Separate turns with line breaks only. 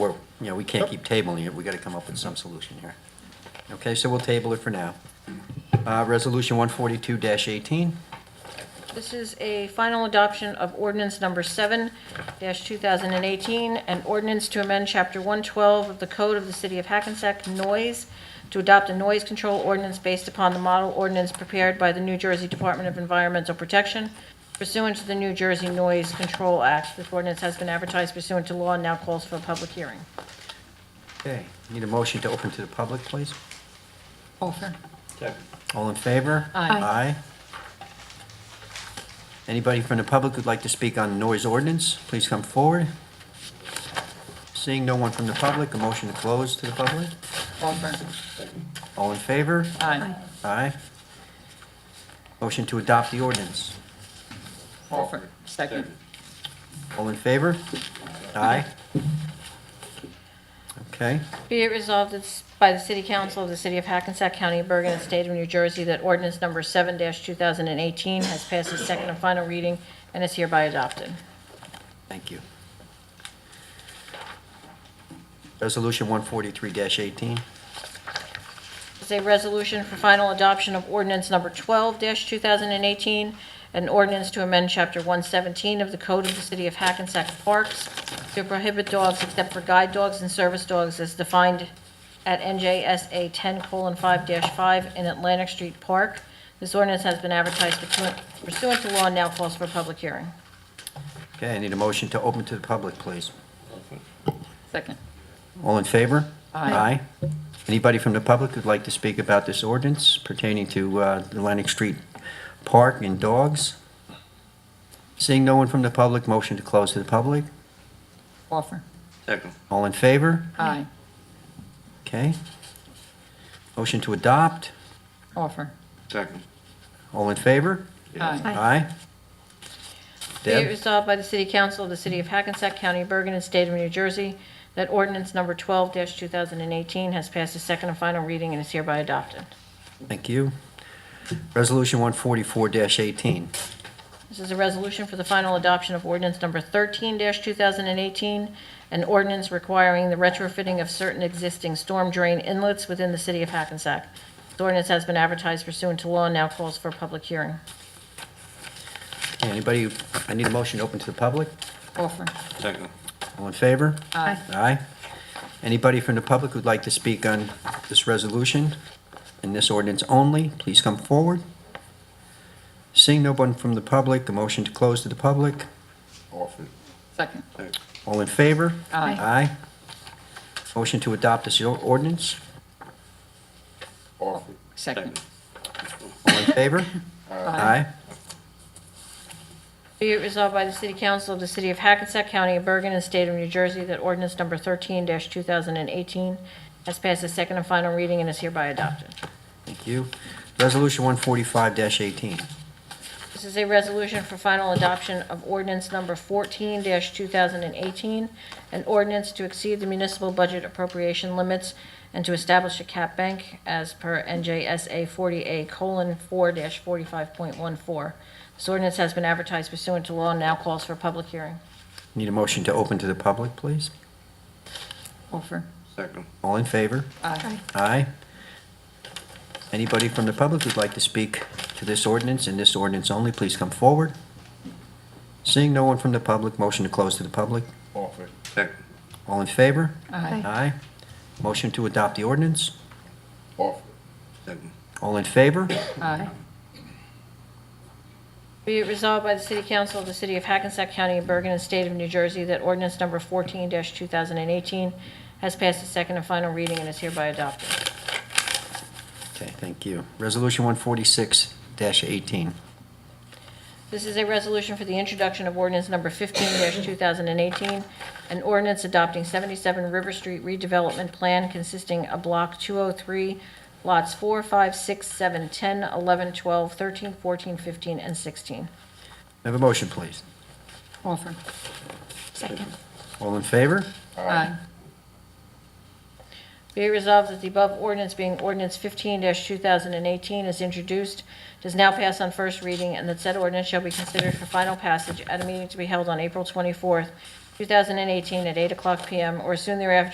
Yeah, we can't keep tabling it, we gotta come up with some solution here. Okay, so we'll table it for now. Uh, Resolution 142-18,
This is a final adoption of ordinance number 7-2018, an ordinance to amend Chapter 112 of the Code of the City of Hackensack Noise to adopt a noise control ordinance based upon the model ordinance prepared by the New Jersey Department of Environmental Protection pursuant to the New Jersey Noise Control Act. This ordinance has been advertised pursuant to law and now calls for a public hearing.
okay, need a motion to open to the public, please?
Offer.
All in favor?
Aye.
Aye. Anybody from the public who'd like to speak on noise ordinance, please come forward. Seeing no one from the public, a motion to close to the public?
Offer.
All in favor?
Aye.
Aye. Motion to adopt the ordinance.
Offer. Second.
All in favor? Aye. Okay,
Be it resolved it's by the City Council of the City of Hackensack County of Bergen and State of New Jersey that ordinance number 7-2018 has passed its second and final reading and is hereby adopted.
thank you. Resolution 143-18,
It's a resolution for final adoption of ordinance number 12-2018, an ordinance to amend Chapter 117 of the Code of the City of Hackensack Parks to prohibit dogs except for guide dogs and service dogs as defined at NJSA 10:5-5 in Atlantic Street Park. This ordinance has been advertised pursuant- pursuant to law and now calls for a public hearing.
okay, I need a motion to open to the public, please.
Second.
All in favor?
Aye.
Aye. Anybody from the public who'd like to speak about this ordinance pertaining to uh, Atlantic Street Park and dogs? Seeing no one from the public, motion to close to the public?
Offer.
Second.
All in favor?
Aye.
Okay. Motion to adopt,
Offer.
Second.
all in favor?
Aye.
Aye.
Be it
Deb,
resolved by the City Council of the City of Hackensack County, Bergen, and State of New Jersey that ordinance number 12-2018 has passed its second and final reading and is hereby adopted.
thank you. Resolution 144-18,
This is a resolution for the final adoption of ordinance number 13-2018, an ordinance requiring the retrofitting of certain existing storm drain inlets within the City of Hackensack. The ordinance has been advertised pursuant to law and now calls for a public hearing.
anybody, I need a motion to open to the public?
Offer.
Second.
All in favor?
Aye.
Aye. Anybody from the public who'd like to speak on this resolution and this ordinance only, please come forward. Seeing no one from the public, a motion to close to the public.
Orford.
Second.
All in favor?
Aye.
Aye. Motion to adopt this or- ordinance.
Orford.
Second.
All in favor? Aye.
Be it resolved by the City Council of the City of Hackensack County of Bergen and State of New Jersey that ordinance number 13-2018 has passed its second and final reading and is hereby adopted.
Thank you. Resolution 145-18.
This is a resolution for final adoption of ordinance number 14-2018, an ordinance to exceed the municipal budget appropriation limits and to establish a cap bank as per NJSA 40A:4-45.14. This ordinance has been advertised pursuant to law and now calls for a public hearing.
Need a motion to open to the public, please?
Offer.
Second.
All in favor?
Aye.
Aye. Anybody from the public who'd like to speak to this ordinance and this ordinance only, please come forward. Seeing no one from the public, motion to close to the public.
Orford. Second.
All in favor?
Aye.
Aye. Motion to adopt the ordinance.
Orford. Second.
All in favor?
Aye.
Be it resolved by the City Council of the City of Hackensack County of Bergen and State of New Jersey that ordinance number 14-2018 has passed its second and final reading and is hereby adopted.
Okay, thank you. Resolution 146-18.
This is a resolution for the introduction of ordinance number 15-2018, an ordinance adopting 77 River Street redevelopment plan consisting of Block 203, lots 4, 5, 6, 7, 10, 11, 12, 13, 14, 15, and 16.
Have a motion, please.
Offer.
Second.
All in favor?
Aye.
Be it resolved that the above ordinance being ordinance 15-2018 is introduced, does now pass on first reading, and that said ordinance shall be considered for final passage at a meeting to be held on April 24th, 2018, at 8 o'clock p.m. or soon thereafter